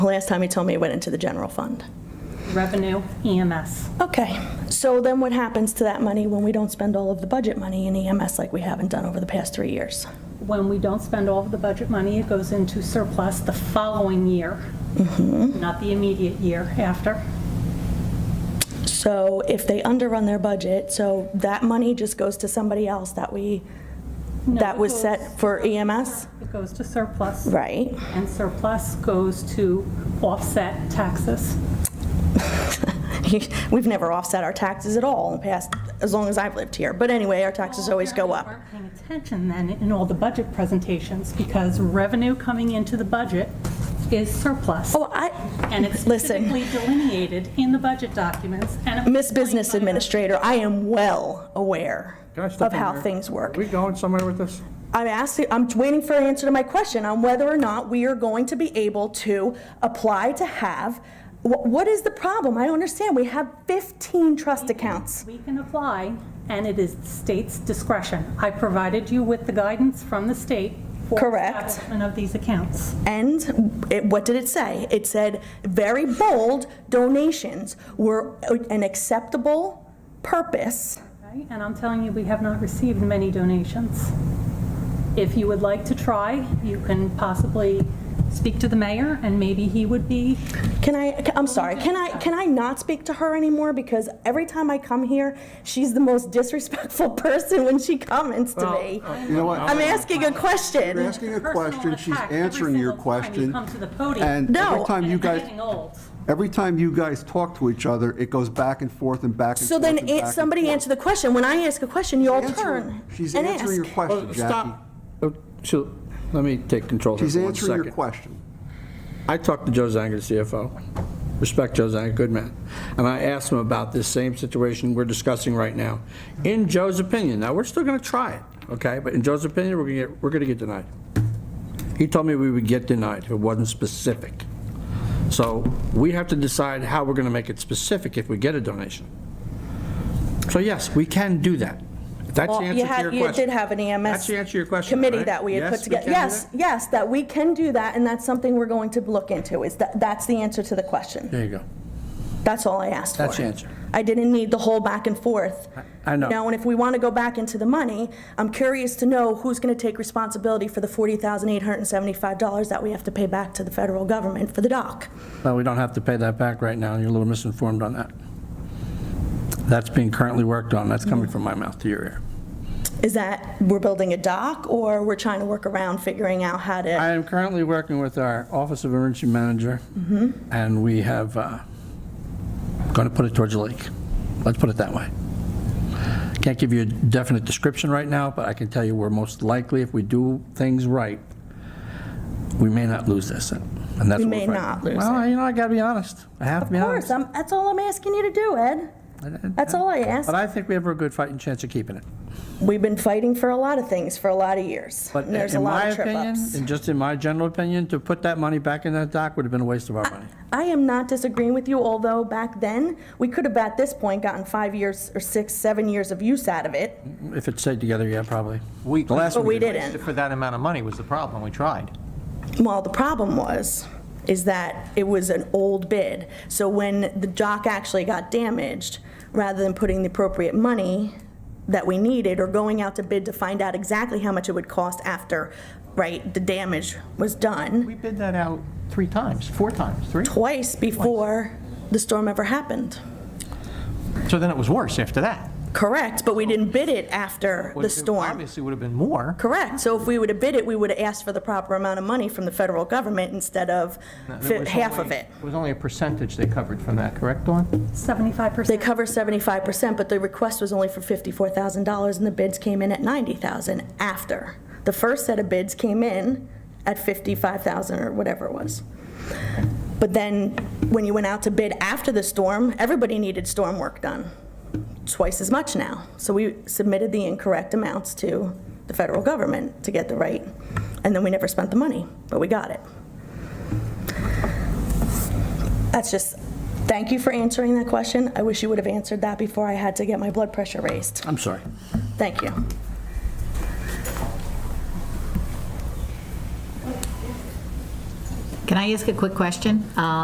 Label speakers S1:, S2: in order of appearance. S1: Last time he told me it went into the general fund.
S2: Revenue E EMS.
S1: Okay, so then what happens to that money when we don't spend all of the budget money in EMS like we haven't done over the past three years?
S2: When we don't spend all of the budget money, it goes into surplus the following year,
S1: Mm-hmm.
S2: not the immediate year after.
S1: So if they underrun their budget, so that money just goes to somebody else that we,
S2: No,
S1: that
S2: it
S1: was
S2: goes-
S1: set for E EMS?
S2: It goes to surplus.
S1: Right.
S2: And surplus goes to offset taxes.
S1: We've never offset our taxes at all in the past, as long as I've lived here. But anyway, our taxes always go up.
S2: Apparently you weren't Paying attention then in all the budget presentations because revenue coming into the budget is surplus.
S1: Oh, I,
S2: And it's
S1: listen.
S2: specifically delineated in the budget documents and.
S1: Miss Business Administrator, I am well aware
S3: Can I step
S1: of
S3: in
S1: how
S3: here?
S1: things
S3: Are
S1: work.
S3: we going somewhere with this?
S1: I'm asking, I'm waiting for an answer to my question on whether or not we are going to be able to apply to have, wh- what is the problem? I don't understand. We have 15 trust accounts.
S2: We can apply, and it is the state's discretion. I provided you with the guidance from the state. for
S1: Correct.
S2: establishment of these accounts.
S1: And it, what did it say? It said, very bold, donations were an acceptable purpose.
S2: okay? And I'm telling you, we have not received many donations. If you would like to try, you can possibly speak to the mayor, and maybe he would be,
S1: Can I, I'm sorry, can I, can I not speak to her anymore? Because every time I come here, she's the most disrespectful person when she comments to me.
S4: You know what?
S1: I'm asking a question.
S4: You're asking a
S2: Personal
S4: question, she's
S2: attack every
S4: answering your
S2: single time you
S4: question.
S2: come to the podium.
S4: And
S1: No.
S4: every time
S2: and
S4: you
S2: it's
S4: guys,
S2: getting old.
S4: every time you guys talk to each other, it goes back and forth and back and forth.
S1: So then
S4: and
S1: an-
S4: back and
S1: somebody
S4: forth.
S1: answer the question. When I ask a question, you all
S4: Answer-
S1: turn
S4: She's
S1: and
S4: answering your
S1: ask.
S4: question, Jackie.
S3: Stop. Oh, so, Let me take control here
S4: She's
S3: for one
S4: answering your
S3: second.
S4: question.
S3: I talked to Joe Zanger, CFO. Respect Joe Zanger, good man. And I asked him about this same situation we're discussing right now. In Joe's opinion, now, we're still going to try it, okay? But in Joe's opinion, we're going to get, we're going to get denied. He told me we would get denied if it wasn't specific. So we have to decide how we're going to make it specific if we get a donation. So yes, we can do that. If That's
S1: Well,
S3: the answer to
S1: you
S3: your
S1: had-
S3: question.
S1: You did have an EMS
S3: That's the answer to your question,
S1: committee
S3: right?
S1: that we had
S3: Yes,
S1: put
S3: we
S1: together.
S3: can do
S1: Yes,
S3: that?
S1: yes, that we can do that, and that's something we're going to look into, is that, that's the answer to the question.
S3: There you go.
S1: That's all I asked for.
S3: That's the answer.
S1: I didn't need the whole back and forth.
S3: I- I know.
S1: You know, and if we want to go back into the money, I'm curious to know who's going to take responsibility for the $40,875 that we have to pay back to the federal government for the dock.
S3: Well, we don't have to pay that back right now, you're a little misinformed on that. That's being currently worked on, that's coming from my mouth to your ear.
S1: Is that we're building a dock, or we're trying to work around figuring out how to?
S3: I am currently working with our Office of Emergency Manager,
S1: Mm-hmm.
S3: and we have, uh, going to put it towards the lake, let's put it that way. Can't give you a definite description right now, but I can tell you we're most likely, if we do things right, we may not lose this, and that's
S1: We
S3: what we're
S1: may
S3: fighting.
S1: not lose
S3: Well, you know, I gotta be honest, I have to be
S1: Of course,
S3: honest.
S1: I'm, that's all I'm asking you to do, Ed. That's all I ask.
S3: But I think we have a good fighting chance of keeping it.
S1: We've been fighting for a lot of things for a lot of years.
S3: But
S1: and there's a
S3: in
S1: lot
S3: my
S1: of trip
S3: opinion,
S1: ups.
S3: and just in my general opinion, to put that money back in that dock would have been a waste of our money.
S1: I am not disagreeing with you, although back then, we could have at this point gotten five years or six, seven years of use out of it,
S3: If it stayed together, yeah, probably.
S5: We-
S3: The last
S1: but
S3: one
S1: we
S3: we did.
S1: didn't.
S5: For that amount of money was the problem, we tried.
S1: Well, the problem was, is that it was an old bid. So when the dock actually got damaged, rather than putting the appropriate money that we needed or going out to bid to find out exactly how much it would cost after, right, the damage was done,
S5: We bid that out three times, four times, three.
S1: twice before the storm ever happened.
S5: So then it was worse after that. Correct,
S1: But we didn't bid it after the storm.
S5: Obviously would have been more.
S1: Correct. So if we would have bid it, we would have asked for the proper amount of money from the federal government instead of
S5: And it
S1: fi-
S5: was
S1: half of
S5: only-
S1: it.
S5: It was only a percentage they covered from that, correct, Dawn?
S2: 75%.
S1: They cover 75%, but the request was only for $54,000, and the bids came in at 90,000 after. The first set of bids came in at 55,000 or whatever it was. But then, when you went out to bid after the storm, everybody needed storm work done, twice as much now. So we submitted the incorrect amounts to the federal government to get the right, and then we never spent the money, but we got it. That's just, thank you for answering that question. I wish you would have answered that before I had to get my blood pressure raised.
S3: I'm sorry.
S1: Thank you.
S6: Can I ask a quick question? Uh,